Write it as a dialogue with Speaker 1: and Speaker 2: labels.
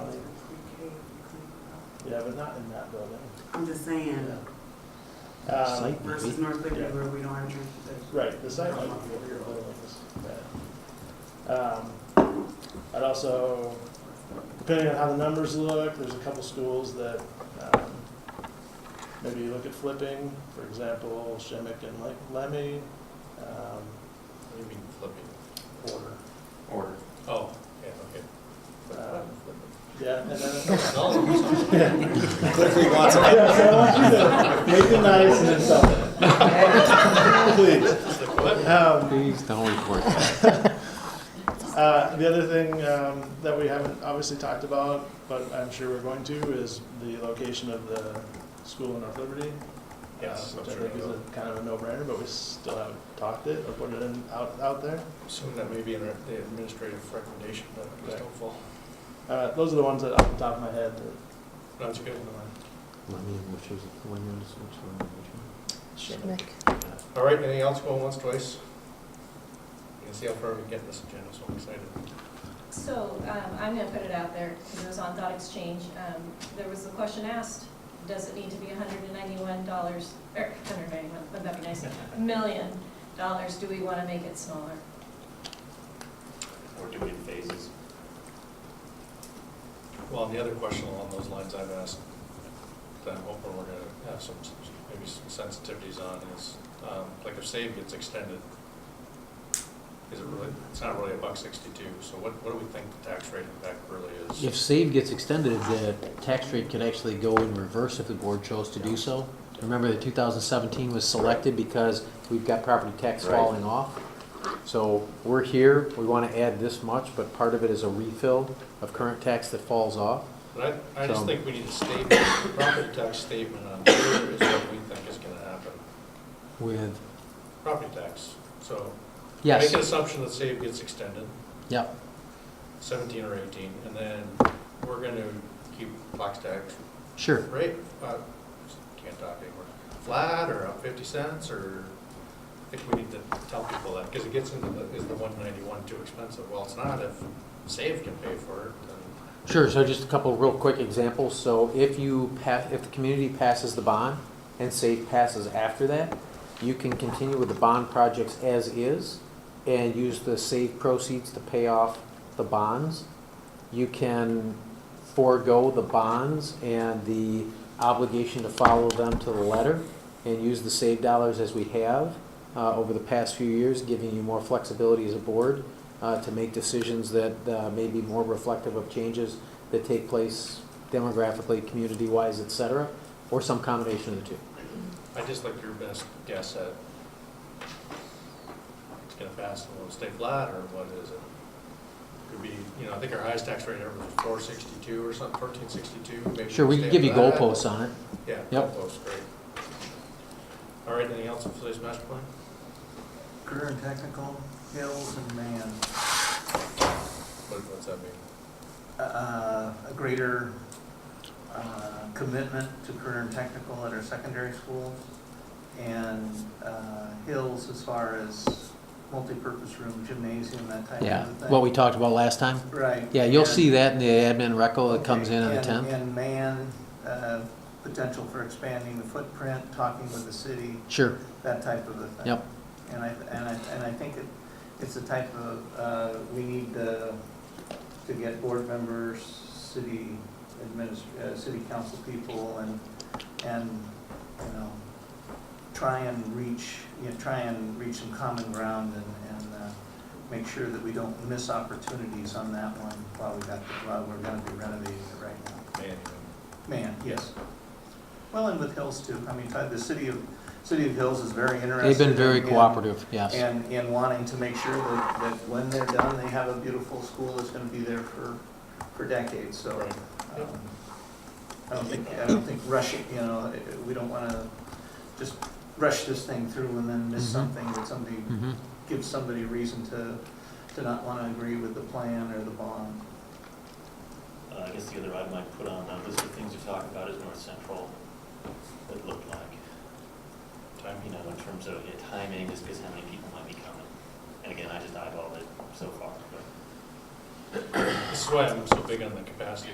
Speaker 1: Yeah, but not in that building.
Speaker 2: I'm just saying,
Speaker 1: Um,
Speaker 2: versus North Liberty
Speaker 1: Yeah.
Speaker 2: where we don't have transportation.
Speaker 1: Right, the site might be over your buildings. but, um, I'd also, depending on how the numbers look, there's a couple schools that um, maybe look at flipping, for example, Shemmick and Le- Lemmy. um,
Speaker 3: What do you mean flipping?
Speaker 1: Porter.
Speaker 3: Order. Oh, yeah, Uh,
Speaker 1: um,
Speaker 3: okay.
Speaker 1: Yeah, and then,
Speaker 3: No,
Speaker 4: Clearly wants it.
Speaker 1: yeah, so I want you to make it nice and insulting. Please. Um,
Speaker 5: Please don't report that.
Speaker 1: Uh, The other thing um, that we haven't obviously talked about, but I'm sure we're going to, is the location of the school in North Liberty.
Speaker 3: Yes,
Speaker 1: uh, Which I
Speaker 3: I'm sure
Speaker 1: think is
Speaker 3: we
Speaker 1: a kind of a no-brainer, but we still haven't talked it or put it in, out, out there.
Speaker 3: Assuming that may be in the administrative recommendation, but I'm just
Speaker 1: Right.
Speaker 3: hopeful.
Speaker 1: Uh, Those are the ones that off the top of my head that.
Speaker 3: That's good.
Speaker 5: Let me, which is, when is, which one, which
Speaker 6: Schmick.
Speaker 3: All right, anything else going once, twice? You can see how far we get in this agenda, so I'm excited.
Speaker 6: So um, I'm going to put it out there because it was on Thought Exchange. Um, There was the question asked, does it need to be $191, or 191, wouldn't that be nice? Million dollars, do we want to make it smaller?
Speaker 4: We're doing phases.
Speaker 3: Well, and the other question along those lines I've asked, that I'm hoping we're gonna have some, maybe some sensitivities on is, um, like if save gets extended, is it really, it's not really a buck sixty-two, so what, what do we think the tax rate impact really is?
Speaker 7: If save gets extended, the tax rate could actually go in reverse if the board chose to do so. Remember that 2017 was selected because we've got property tax
Speaker 4: Right.
Speaker 7: falling off. So we're here, we want to add this much, but part of it is a refill of current tax that falls off.
Speaker 3: But I, I just
Speaker 7: So-
Speaker 3: think we need a statement, a property tax statement on is what we think is gonna happen,
Speaker 7: With,
Speaker 3: property tax. So make
Speaker 7: yes,
Speaker 3: an assumption that save gets extended,
Speaker 7: yep,
Speaker 3: seventeen or eighteen, and then we're gonna keep box tax
Speaker 7: sure.
Speaker 3: rate, uh, can't talk anymore, flat or up fifty cents, or I think we need to tell people that, because it gets into the, is the one ninety-one too expensive? Well, it's not if Save can pay for it, then
Speaker 7: Sure, so just a couple of real quick examples. So if you pass, if the community passes the bond and SAFE passes after that, you can continue with the bond projects as is and use the SAFE proceeds to pay off the bonds. You can forego the bonds and the obligation to follow them to the letter and use the SAVE dollars as we have uh, over the past few years, giving you more flexibility as a board uh, to make decisions that uh, may be more reflective of changes that take place demographically, community-wise, et cetera, or some combination of the two.
Speaker 3: I just like your best guess at it's gonna pass, and will it stay flat, or what is it? Could be, you know, I think our highest tax rate ever was four sixty-two or something, thirteen sixty-two, maybe.
Speaker 7: Sure, we
Speaker 3: it'll
Speaker 7: can
Speaker 3: stay
Speaker 7: give you
Speaker 3: flat.
Speaker 7: goalposts on it.
Speaker 3: Yeah,
Speaker 7: Yep.
Speaker 3: goalposts, great. All right, anything else on today's master plan?
Speaker 8: Career and technical, hills and man,
Speaker 3: What, what's that mean?
Speaker 8: uh, a greater uh, commitment to career and technical at our secondary schools, and uh, hills as far as multipurpose room, gymnasium, that type
Speaker 7: Yeah,
Speaker 8: of thing.
Speaker 7: what we talked about last time.
Speaker 8: Right.
Speaker 7: Yeah, you'll
Speaker 8: and-
Speaker 7: see that in the admin record that comes in on the
Speaker 8: And-
Speaker 7: 10th.
Speaker 8: And man, uh, potential for expanding the footprint, talking with the city,
Speaker 7: Sure,
Speaker 8: that type of a thing.
Speaker 7: yep,
Speaker 8: And I, and I, and I think it, it's the type of, uh, we need to, to get board members, city adminis, uh, city council people and, and, you know, try and reach, you know, try and reach some common ground and, and, uh, make sure that we don't miss opportunities on that one while we got, while we're gonna be renovating it right now.
Speaker 3: Man,
Speaker 8: Man, yes. Well, and with Hills too. I mean, uh, the city of, city of Hills is very interested.
Speaker 7: they've been very
Speaker 8: in-
Speaker 7: cooperative, yes.
Speaker 8: And, and wanting to make sure that, that when they're done, they have a beautiful school that's gonna be there for, for decades, so.
Speaker 3: Right.
Speaker 8: um, I don't think, I don't think rushing, you know, eh, we don't wanna just rush this thing through and then miss
Speaker 7: Mhm.
Speaker 8: something that somebody,
Speaker 7: Mhm.
Speaker 8: gives somebody reason to, to not wanna agree with the plan or the bond.
Speaker 4: Uh, I guess the other item I put on that list of things to talk about is North Central, what it looked like. Time, you know, in terms of yeah, timing, just because how many people might be coming. And again, I just eyeballed it so far, but.
Speaker 3: This is why I'm so big on the capacity